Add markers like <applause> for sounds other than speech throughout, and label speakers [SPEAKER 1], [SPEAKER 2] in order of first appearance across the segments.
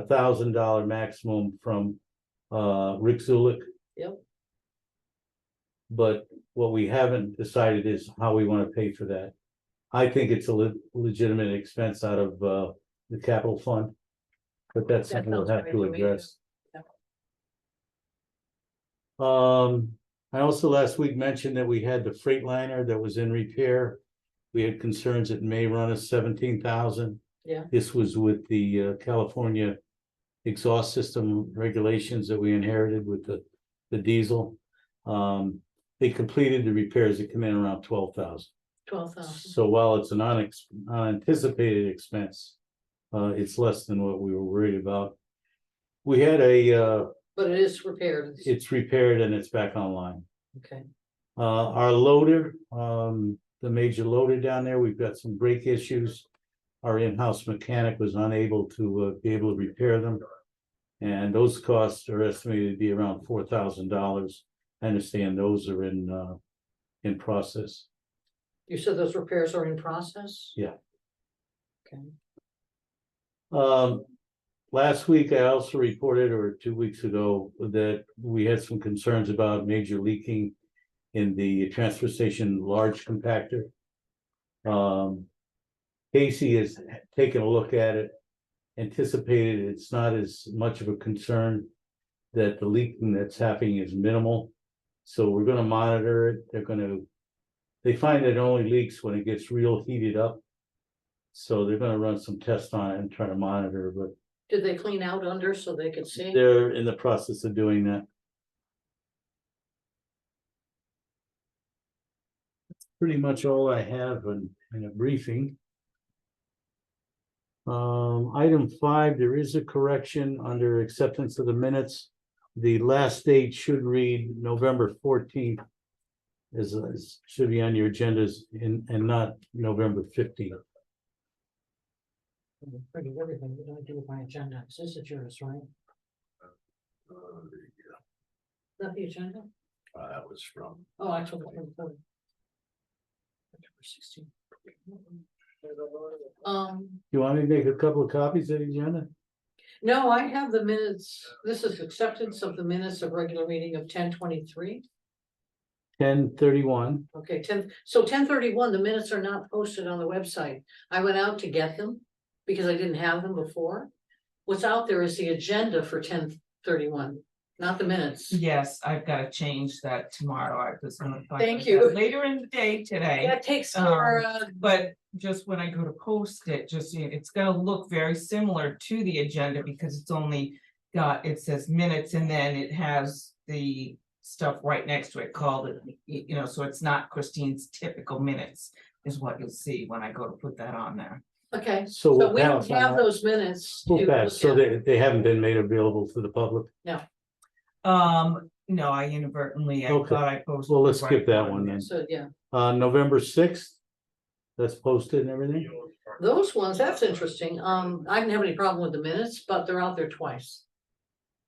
[SPEAKER 1] a thousand dollar maximum from uh Rick Zulik.
[SPEAKER 2] Yep.
[SPEAKER 1] But what we haven't decided is how we want to pay for that. I think it's a le- legitimate expense out of uh the capital fund. But that's
[SPEAKER 2] That
[SPEAKER 1] something we'll
[SPEAKER 2] sounds
[SPEAKER 1] have to
[SPEAKER 2] familiar to me,
[SPEAKER 1] address. Um, I also last week mentioned that we had the freight liner that was in repair. We had concerns it may run us seventeen thousand.
[SPEAKER 2] Yeah.
[SPEAKER 1] This was with the uh, California exhaust system regulations that we inherited with the, the diesel. Um, they completed the repairs that come in around twelve thousand.
[SPEAKER 2] twelve thousand.
[SPEAKER 1] So while it's an unex- unanticipated expense, uh, it's less than what we were worried about. We had a, uh,
[SPEAKER 2] But it is repaired.
[SPEAKER 1] it's repaired and it's back online.
[SPEAKER 2] Okay,
[SPEAKER 1] Uh, our loader, um, the major loader down there, we've got some brake issues. Our in-house mechanic was unable to, uh, be able to repair them. And those costs are estimated to be around four thousand dollars. I understand those are in, uh, in process.
[SPEAKER 2] you said those repairs are in process?
[SPEAKER 1] Yeah.
[SPEAKER 2] Okay,
[SPEAKER 1] Um, last week I also reported, or two weeks ago, that we had some concerns about major leaking in the transfer station large compactor. Um, Casey has taken a look at it, anticipated it's not as much of a concern that the leaking that's happening is minimal. So we're gonna monitor it. They're gonna, they find that it only leaks when it gets real heated up. So they're gonna run some tests on it and try to monitor, but
[SPEAKER 2] did they clean out under so they could see?
[SPEAKER 1] they're in the process of doing that. That's Pretty much all I have in, in a briefing. Um, item five, there is a correction under acceptance of the minutes. The last date should read November fourteenth. Is, is, should be on your agendas and, and not November fifteenth.
[SPEAKER 2] Pretty everything that I do with my agenda, this is yours, right? Not the agenda?
[SPEAKER 3] Uh, that was from,
[SPEAKER 2] Oh, actually. Sixteen. Um,
[SPEAKER 1] You want me to make a couple of copies of the agenda?
[SPEAKER 2] no, I have the minutes, this is acceptance of the minutes of regular meeting of ten twenty-three.
[SPEAKER 1] Ten thirty-one,
[SPEAKER 2] Okay, ten, so ten thirty-one, the minutes are not posted on the website. I went out to get them because I didn't have them before. What's out there is the agenda for ten thirty-one, not the minutes.
[SPEAKER 4] Yes, I've gotta change that tomorrow. I was gonna. talk
[SPEAKER 2] Thank
[SPEAKER 4] about
[SPEAKER 2] you.
[SPEAKER 4] that Later in the day today,
[SPEAKER 2] That takes
[SPEAKER 4] Um,
[SPEAKER 2] care of,
[SPEAKER 4] but just when I go to post it, just, you know, it's gonna look very similar to the agenda because it's only. Got, it says minutes and then it has the stuff right next to it called, it, y- you know, so it's not Christine's typical minutes. Is what you'll see when I go to put that on there.
[SPEAKER 2] okay,
[SPEAKER 1] so.
[SPEAKER 2] so
[SPEAKER 1] we'll
[SPEAKER 2] we don't
[SPEAKER 1] pass on
[SPEAKER 2] have
[SPEAKER 1] that.
[SPEAKER 2] those minutes.
[SPEAKER 1] We'll
[SPEAKER 2] to
[SPEAKER 1] pass, so
[SPEAKER 2] look at.
[SPEAKER 1] they, they haven't been made available to the public,
[SPEAKER 4] Um, no, I inadvertently, I
[SPEAKER 1] Okay.
[SPEAKER 4] thought I posted.
[SPEAKER 1] well,
[SPEAKER 4] the
[SPEAKER 1] let's
[SPEAKER 4] right
[SPEAKER 1] skip that one then,
[SPEAKER 2] So, yeah,
[SPEAKER 1] uh, November sixth. That's posted and everything,
[SPEAKER 2] those ones, that's interesting. Um, I didn't have any problem with the minutes, but they're out there twice.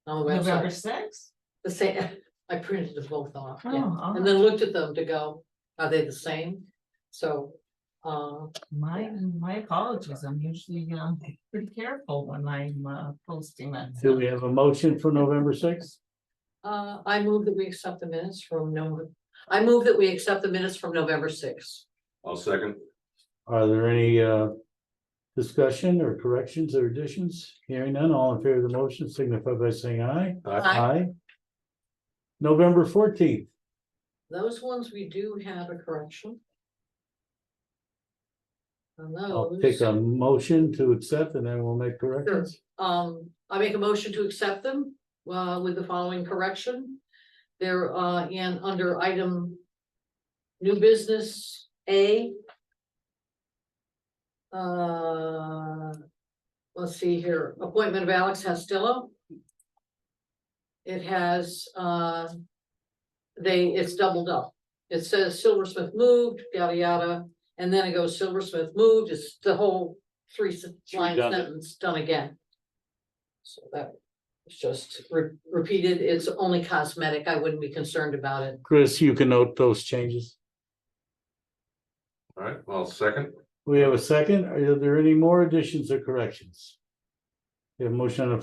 [SPEAKER 2] On the
[SPEAKER 4] November
[SPEAKER 2] website,
[SPEAKER 4] sixth?
[SPEAKER 2] the same, <laughs> I printed them both off,
[SPEAKER 4] Oh,
[SPEAKER 2] yeah.
[SPEAKER 4] all
[SPEAKER 2] And then looked at them to go, are they the same? So, uh,
[SPEAKER 4] My, my apologies, I'm usually, um, pretty careful when I'm, uh, posting that.
[SPEAKER 1] do we have a motion for November sixth?
[SPEAKER 2] uh, I move that we accept the minutes from November. I move that we accept the minutes from November sixth.
[SPEAKER 3] I'll second.
[SPEAKER 1] Are there any, uh, discussion or corrections or additions? Hearing none, all in favor of the motion signify by saying aye.
[SPEAKER 2] Aye.
[SPEAKER 1] November fourteenth,
[SPEAKER 2] Those ones, we do have a correction. On
[SPEAKER 1] I'll take
[SPEAKER 2] those,
[SPEAKER 1] a motion to accept and then we'll make corrections.
[SPEAKER 2] um, I make a motion to accept them, uh, with the following correction. They're, uh, in under item new business A. Uh, let's see here, appointment of Alex Costello. It has, uh, they, it's doubled up. It says Silversmith moved, yada, yada, and then it goes Silversmith moved, it's the whole three sen- line
[SPEAKER 1] redundant.
[SPEAKER 2] sentence done again. So that was just re- repeated, it's only cosmetic, I wouldn't be concerned about it.
[SPEAKER 1] Chris, you can note those changes.
[SPEAKER 3] All right, I'll second.
[SPEAKER 1] We have a second. Are there any more additions or corrections? We have a motion on the